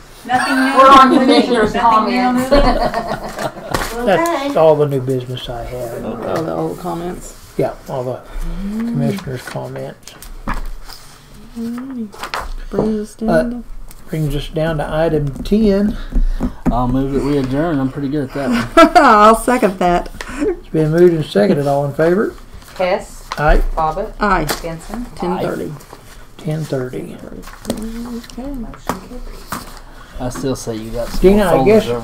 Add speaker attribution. Speaker 1: Nothing new.
Speaker 2: We're on commissioners'
Speaker 1: Nothing new on
Speaker 2: comments.
Speaker 1: this?
Speaker 3: That's all the new business I have.
Speaker 4: All the old comments.
Speaker 3: Yeah, all the commissioners' comments.
Speaker 4: Brings us down.
Speaker 3: Uh,
Speaker 4: to-
Speaker 3: Brings us down to item ten.
Speaker 5: I'll move that we adjourn. I'm pretty good at that one.
Speaker 4: I'll second that.
Speaker 3: It's been moved and seconded. All in favor?
Speaker 2: Hess,
Speaker 3: Aye.
Speaker 2: Bobbit,
Speaker 4: Aye.
Speaker 2: Benson,
Speaker 4: Ten thirty.
Speaker 3: Ten thirty.
Speaker 4: Okay.
Speaker 2: motion carried.
Speaker 5: I still say you got some
Speaker 3: Dina, I
Speaker 5: folders
Speaker 3: guess-
Speaker 5: over